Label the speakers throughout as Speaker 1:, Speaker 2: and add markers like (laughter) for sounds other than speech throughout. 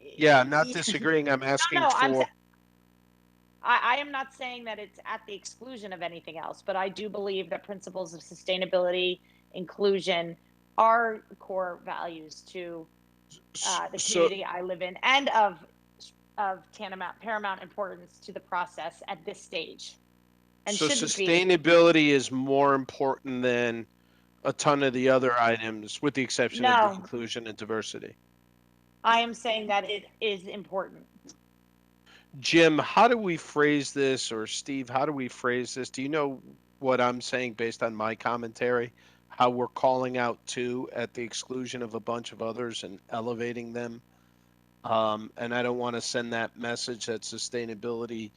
Speaker 1: yeah, I'm not
Speaker 2: (laughs) Yeah.
Speaker 1: disagreeing, I'm asking
Speaker 2: no, I'm
Speaker 1: for,
Speaker 2: sa- I, I am not saying that it's at the exclusion of anything else, but I do believe that principles of sustainability, inclusion are core values to uh, the
Speaker 1: so,
Speaker 2: community I live in and of of tantamount paramount importance to the process at this stage. And
Speaker 1: so
Speaker 2: shouldn't be.
Speaker 1: sustainability is more important than a ton of the other items, with the exception of
Speaker 2: No.
Speaker 1: the inclusion and diversity.
Speaker 2: I am saying that it is important.
Speaker 1: Jim, how do we phrase this, or Steve, how do we phrase this? Do you know what I'm saying based on my commentary? How we're calling out two at the exclusion of a bunch of others and elevating them? Um, and I don't want to send that message that sustainability,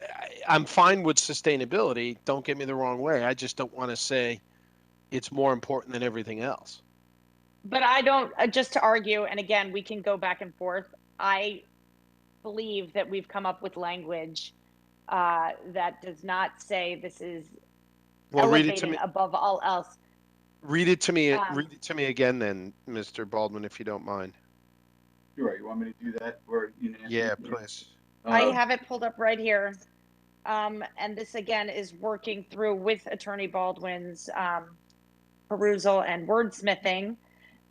Speaker 1: I, I'm fine with sustainability, don't get me the wrong way. I just don't want to say it's more important than everything else.
Speaker 2: But I don't, uh, just to argue, and again, we can go back and forth. I believe that we've come up with language uh, that does not say this is
Speaker 1: Well, read it to
Speaker 2: elevated
Speaker 1: me,
Speaker 2: above all else.
Speaker 1: read it to me,
Speaker 2: Um,
Speaker 1: read it to me again then, Mr. Baldwin, if you don't mind.
Speaker 3: Sure, you want me to do that or unanimously?
Speaker 1: Yeah, please.
Speaker 2: I
Speaker 3: Uh,
Speaker 2: have it pulled up right here. Um, And this again is working through with Attorney Baldwin's um, perusal and wordsmithing.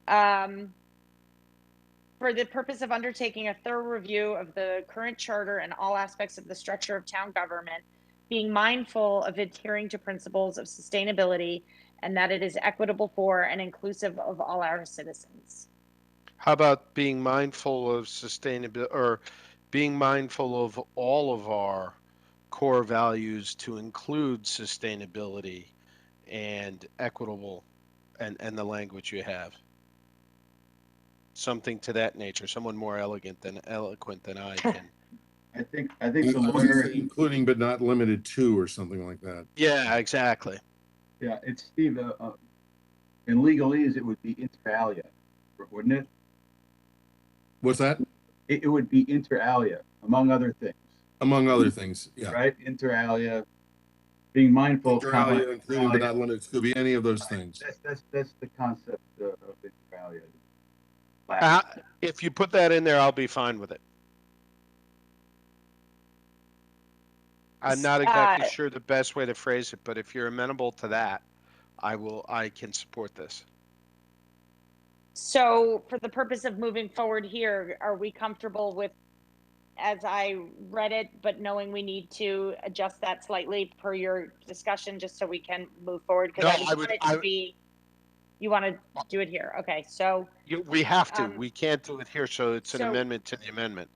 Speaker 2: Um, For the purpose of undertaking a thorough review of the current charter and all aspects of the structure of town government, being mindful of adhering to principles of sustainability and that it is equitable for and inclusive of all our citizens.
Speaker 1: How about being mindful of sustainability or being mindful of all of our core values to include sustainability and equitable and, and the language you have? Something to that nature, someone more elegant than eloquent than I can.
Speaker 3: I think, I think the
Speaker 4: I was gonna say
Speaker 3: lawyer,
Speaker 4: Including but not limited to or something like that.
Speaker 1: yeah, exactly.
Speaker 3: yeah, it's Steve, uh, uh, in legalese, it would be inter alia, wouldn't it?
Speaker 4: What's that?
Speaker 3: It, it would be inter alia, among other things,
Speaker 4: Among other things, yeah.
Speaker 3: right? Inter alia, being mindful. of
Speaker 4: Inter alia, Including but
Speaker 3: comma,
Speaker 4: not limited to, could be any of those things.
Speaker 3: That's, that's, that's the concept uh, of inter alia.
Speaker 1: Uh, if you put that in there, I'll be fine with it. I'm not exactly
Speaker 2: Uh,
Speaker 1: sure the best way to phrase it, but if you're amenable to that, I will, I can support this.
Speaker 2: So for the purpose of moving forward here, are we comfortable with, as I read it, but knowing we need to adjust that slightly per your discussion, just so we can move forward?
Speaker 1: No,
Speaker 2: Because
Speaker 1: I
Speaker 2: I
Speaker 1: would-
Speaker 2: want it
Speaker 1: I-
Speaker 2: to be, you want to do it here, okay, so,
Speaker 1: You, we have to,
Speaker 2: Um,
Speaker 1: we can't do it here, so it's an
Speaker 2: so-
Speaker 1: amendment to the amendment.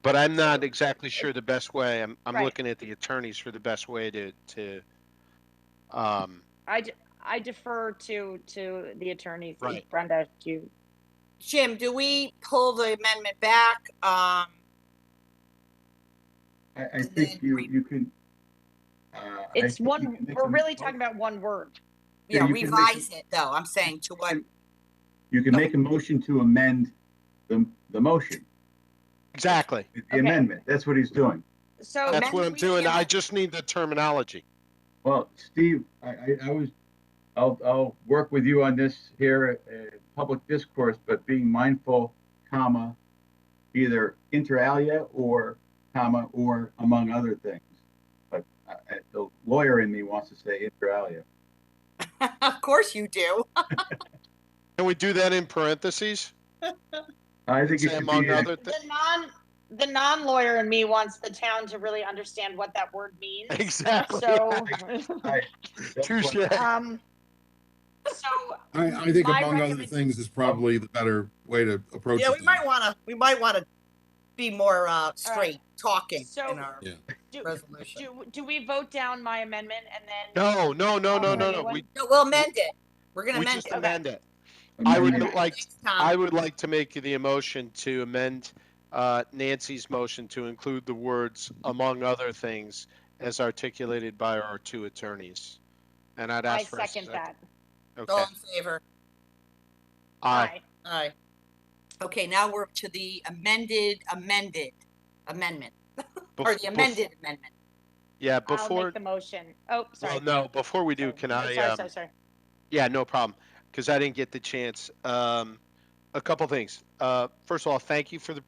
Speaker 1: But I'm not exactly sure the best way, I'm, I'm
Speaker 2: Right.
Speaker 1: looking at the attorneys for the best way to, to, um,
Speaker 2: I, d- I defer to, to the attorneys.
Speaker 1: Right.
Speaker 2: Brenda, do you,
Speaker 5: Jim, do we pull the amendment back? Um,
Speaker 3: I, I think you, you could. uh, I
Speaker 2: it's
Speaker 3: think you
Speaker 2: one,
Speaker 3: can make
Speaker 2: we're
Speaker 3: a-
Speaker 2: really talking about one word.
Speaker 3: Yeah,
Speaker 5: you know,
Speaker 3: you can make-
Speaker 5: revise it though, I'm saying to what, (laughs)
Speaker 3: You can make a motion to amend the, the motion,
Speaker 1: exactly.
Speaker 3: the
Speaker 2: Okay.
Speaker 3: amendment. That's what he's doing.
Speaker 2: So.
Speaker 1: That's what
Speaker 5: amendment
Speaker 1: I'm
Speaker 5: we
Speaker 1: doing,
Speaker 5: can't-
Speaker 1: I just need the terminology.
Speaker 3: Well, Steve, I, I, I was, I'll, I'll work with you on this here at, at public discourse, but being mindful, comma, either inter alia or comma, or among other things. But I, I- the lawyer in me wants to say inter alia.
Speaker 5: of course you do.
Speaker 1: Can we do that in parentheses?
Speaker 3: I think it
Speaker 1: Say
Speaker 3: should
Speaker 1: among
Speaker 3: be, a-
Speaker 1: other things?
Speaker 2: The non, the non-lawyer in me wants the town to really understand what that word (laughs) means.
Speaker 1: Exactly.
Speaker 2: So,
Speaker 1: (laughs)
Speaker 3: that's what-
Speaker 1: Touche.
Speaker 2: um, so
Speaker 4: I, I think
Speaker 2: My
Speaker 4: among other
Speaker 2: recommend-
Speaker 4: things is probably the better way to approach it.
Speaker 5: Yeah, we
Speaker 4: then.
Speaker 5: might wanna, we might wanna be more, uh, straight talking
Speaker 2: So-
Speaker 5: in our
Speaker 4: Yeah.
Speaker 2: do,
Speaker 5: resolution.
Speaker 2: do, do we vote down my amendment and then?
Speaker 1: No, no, no, no,
Speaker 2: Um,
Speaker 1: no, no.
Speaker 2: anyone?
Speaker 1: We,
Speaker 5: No, we'll amend it. We're gonna
Speaker 1: we
Speaker 5: amend
Speaker 1: just
Speaker 5: it.
Speaker 1: amend it. I would
Speaker 3: amendment.
Speaker 1: like,
Speaker 5: Next time.
Speaker 2: Um,
Speaker 1: I would like to make the motion to amend uh, Nancy's motion to include the words among other things as articulated by our two attorneys. And I'd
Speaker 2: I
Speaker 1: ask for a
Speaker 2: second that.
Speaker 1: Okay.
Speaker 5: All in favor?
Speaker 1: Aye.
Speaker 5: Aye. Okay, now we're to the amended, amended amendment,
Speaker 1: Bef-
Speaker 5: or the
Speaker 1: bef-
Speaker 5: amended amendment.
Speaker 1: Yeah,
Speaker 2: I'll
Speaker 1: before,
Speaker 2: make the motion. Oh, sorry. Oh,
Speaker 1: well, no, before we do, can
Speaker 2: Sorry,
Speaker 1: I,
Speaker 2: Sorry,
Speaker 1: um,
Speaker 2: sorry, sorry.
Speaker 1: Yeah, no problem. Because I didn't get the chance. Um, a couple things. Uh, first of all, thank you for the